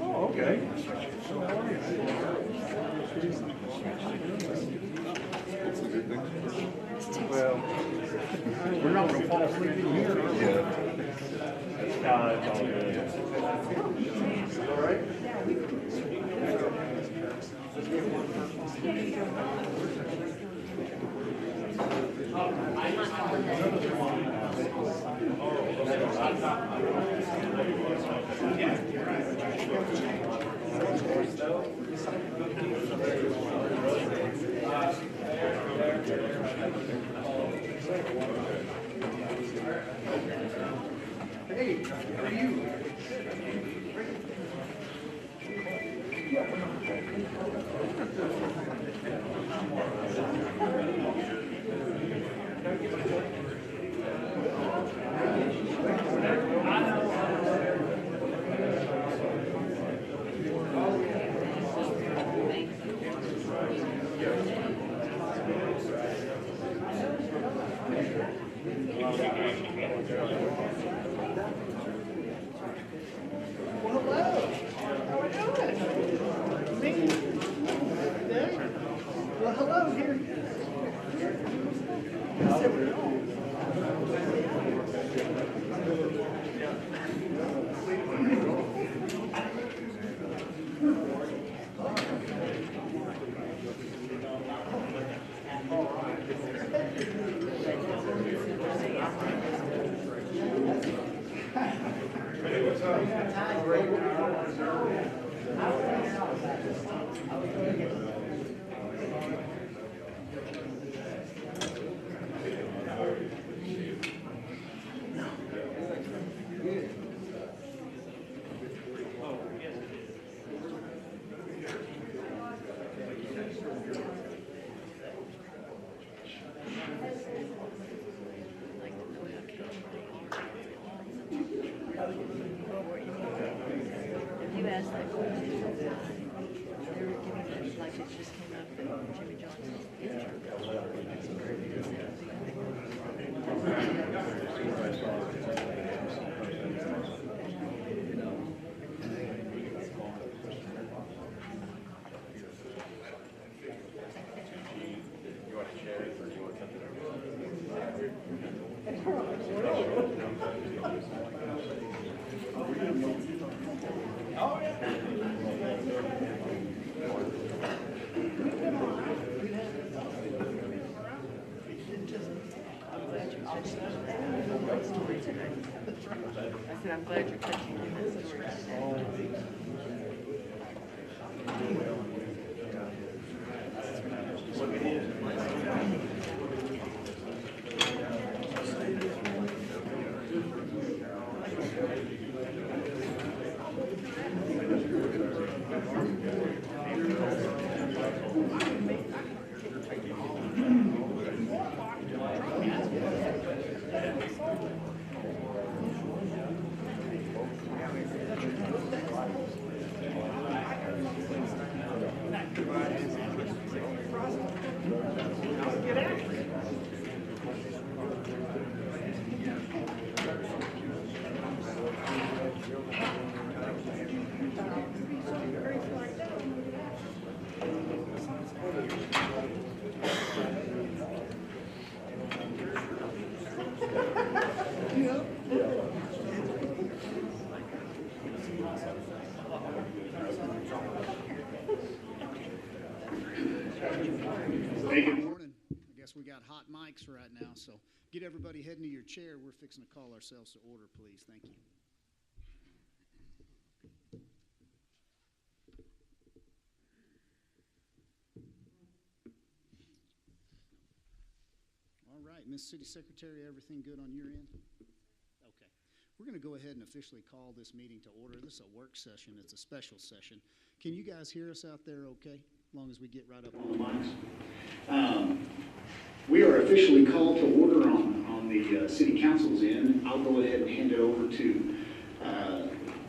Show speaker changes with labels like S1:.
S1: Oh, okay. Well, we're not gonna fall asleep in here. are we? Nah, it's all good. Hey, how are you?
S2: Well, hello. How are you doing? Me? Nick? Well, hello, here. Yes, there we go.
S3: You asked that question. They were giving it, like, it just came up that Jimmy Johnson's picture. I said, I'm glad you're catching on that story today.
S2: Morning. I guess we got hot mics right now, so get everybody heading to your chair. We're fixing to call ourselves to order, please. Thank you. All right, Miss City Secretary, everything good on your end? Okay. We're going to go ahead and officially call this meeting to order. This is a work session. It's a special session. Can you guys hear us out there okay? As long as we get right up on the mics. Um, We are officially called to order on, on the uh, city council's end. I'll go ahead and hand it over to